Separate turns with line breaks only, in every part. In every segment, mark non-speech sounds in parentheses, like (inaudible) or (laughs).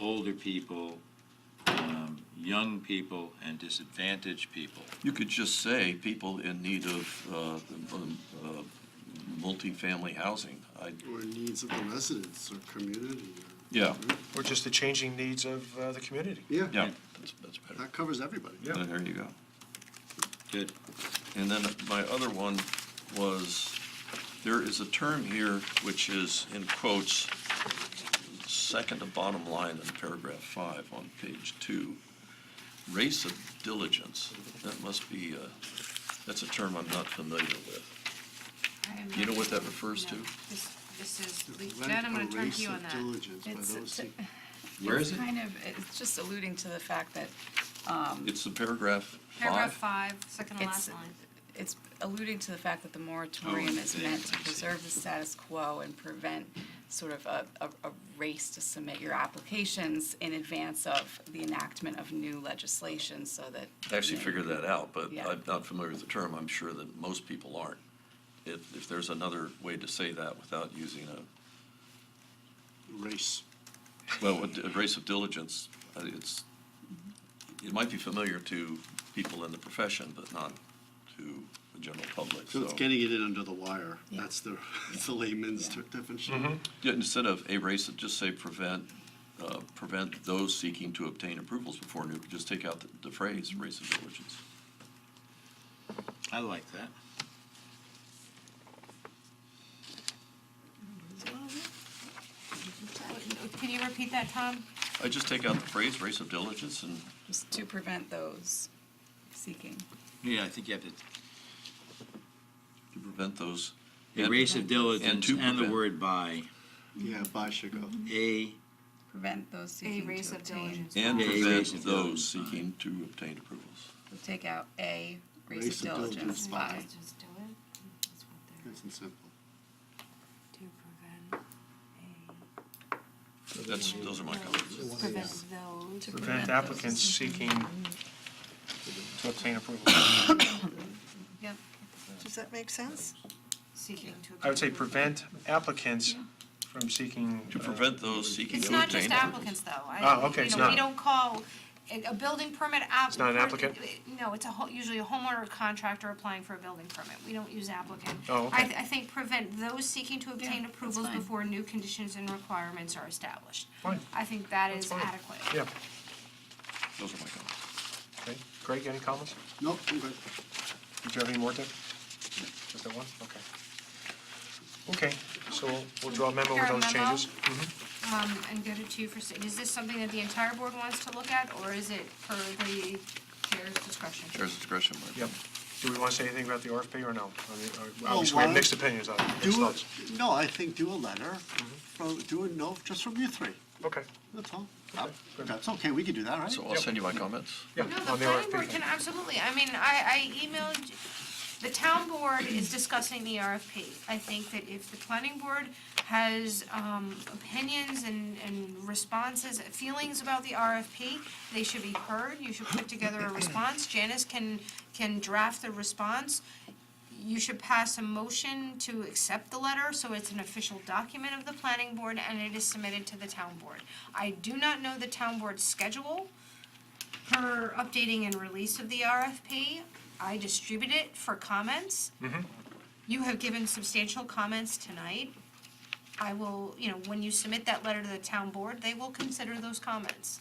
older people, um, young people, and disadvantaged people.
You could just say people in need of uh, um, uh, multifamily housing. I-
or needs of the residents or community. or-
Yeah,
Or just the changing needs of uh, the community.
Yeah,
yeah, that's that's better.
that covers everybody.
Yeah.
Uh, There you go.
Good.
And then my other one was, there is a term here which is in quotes, second to bottom line in paragraph five on page two, race of diligence. That must be, uh, that's a term I'm not familiar with.
I am
You know
not-
what that refers
no.
to?
This, this is,
Lent
Jen, I'm
a
gonna turn
race
to you
of
on that.
diligence by
It's-
those who-
(laughs)
Where is it?
Kind of, it's just alluding to the fact that
It's the paragraph
Paragraph
five.
five, second to
it's,
last line.
it's alluding to the fact that the moratorium is
there,
meant
I
to
see.
preserve the status quo and prevent sort of a, a, a race to submit your applications in advance of the enactment of new legislation so that.
I Actually figured that out, but
Yeah.
I'm not familiar with the term. I'm sure that most people aren't. If, if there's another way to say that without using a
Race.
Well, with the race of diligence, uh, it's, it might be familiar to people in the profession, but not to the general public,
So
so.
it's getting it in under the wire.
Yeah.
That's the, (laughs) it's the layman's ter- definition.
Yeah, Instead of a race, just say prevent, uh, prevent those seeking to obtain approvals before new, just take out the- the phrase, race of diligence.
I like that.
Can you repeat that, Tom?
I just take out the phrase, race of diligence, and
Just to prevent those seeking.
Yeah, I think you have to
to prevent those.
A race of
And
diligence
to
and the
prevent.
word by,
Yeah, by should go.
a,
Prevent those
A
seeking to
race of
obtain.
diligence.
And
A race
prevent
of
those
diligence.
seeking to obtain approvals.
We'll Take out A, race of diligence by.
Just do it. That's what they're-
Nice and simple.
to prevent a-
That's, those are my comments.
Prevent those.
to
Prevent
those-
applicants seeking to obtain approval.
Yep.
Does that make sense?
Seeking to.
I would say
obtain-
prevent applicants from seeking.
To
uh,
prevent those seeking to obtain.
It's not just
approvals.
applicants, though. I-
Oh, okay,
you
it's
know,
not.
We don't call, a a building permit app.
It's not an applicant?
No, it's a, ho- usually a homeowner or contractor applying for a building permit. We don't use applicant.
Oh, okay.
I, th- I think prevent those seeking to obtain
Yeah, that's
approvals
fine.
before new conditions and requirements are established.
Fine.
I think that
That's
is
fine.
adequate.
Yeah,
Those are my comments.
okay. Greg, any comments?
Nope, I'm good.
Did you have any more, Dick? Just that one? Okay. Okay, so we'll- we'll draw a memo with
Prepare a
those
memo.
changes. Mm-hmm,
Um, and go to two for, s- is this something that the entire board wants to look at, or is it per the chair's discretion?
Chair's discretion, Mike.
Yep. Do we want to say anything about the RFP or no? I mean, uh,
Well,
Obviously, we have
why-
mixed opinions on it. mixed
Do a,
thoughts.
no, I think do a letter from, do a note just from you three.
Okay,
That's all.
Okay, good.
That's okay, we can do that, right?
So I'll send you my comments.
yeah.
No,
on RFP
the planning board
thing.
can, absolutely, I mean, I, I emailed, the town board is discussing the RFP. I think that if the planning board has, um, opinions and, and responses, feelings about the RFP, they should be heard, you should put together a response, Janice can, can draft the response. You should pass a motion to accept the letter, so it's an official document of the planning board, and it is submitted to the town board. I do not know the town board's schedule, her updating and release of the RFP. I distribute it for comments. You have given substantial comments tonight. I will, you know, when you submit that letter to the town board, they will consider those comments.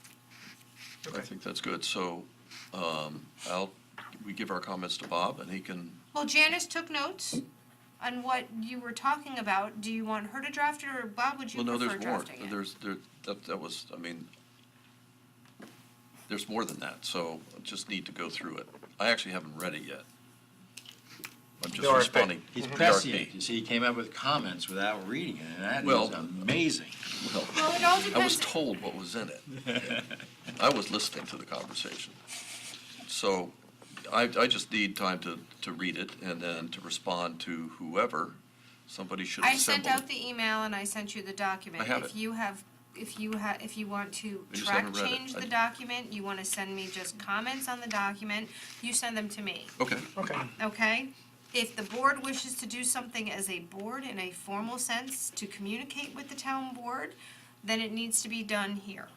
I think that's good. So um, I'll, we give our comments to Bob, and he can,
Well, Janice took notes on what you were talking about. Do you want her to draft it, or Bob, would you
well, no,
prefer
there's more.
drafting it?
There's, there, that, that was, I mean, there's more than that, so I just need to go through it. I actually haven't read it yet. I'm
The
just
RFP.
responding.
he's
The
prescient.
RFP.
You see, he came up with comments without reading it, and that
Well-
is amazing.
Well, it all
I was
depends,
told what was in it. I was listening to the conversation. So I, I just need time to, to read it and then to respond to whoever. Somebody should
I sent
assemble it.
out the email and I sent you the document.
I have
If
it.
you have, if you ha, if you want to
I just
track
haven't read it.
change
I-
the document, you wanna send me just comments on the document, you send them to me,
Okay.
Okay,
okay? If the board wishes to do something as a board in a formal sense to communicate with the town board, then it needs to be done here.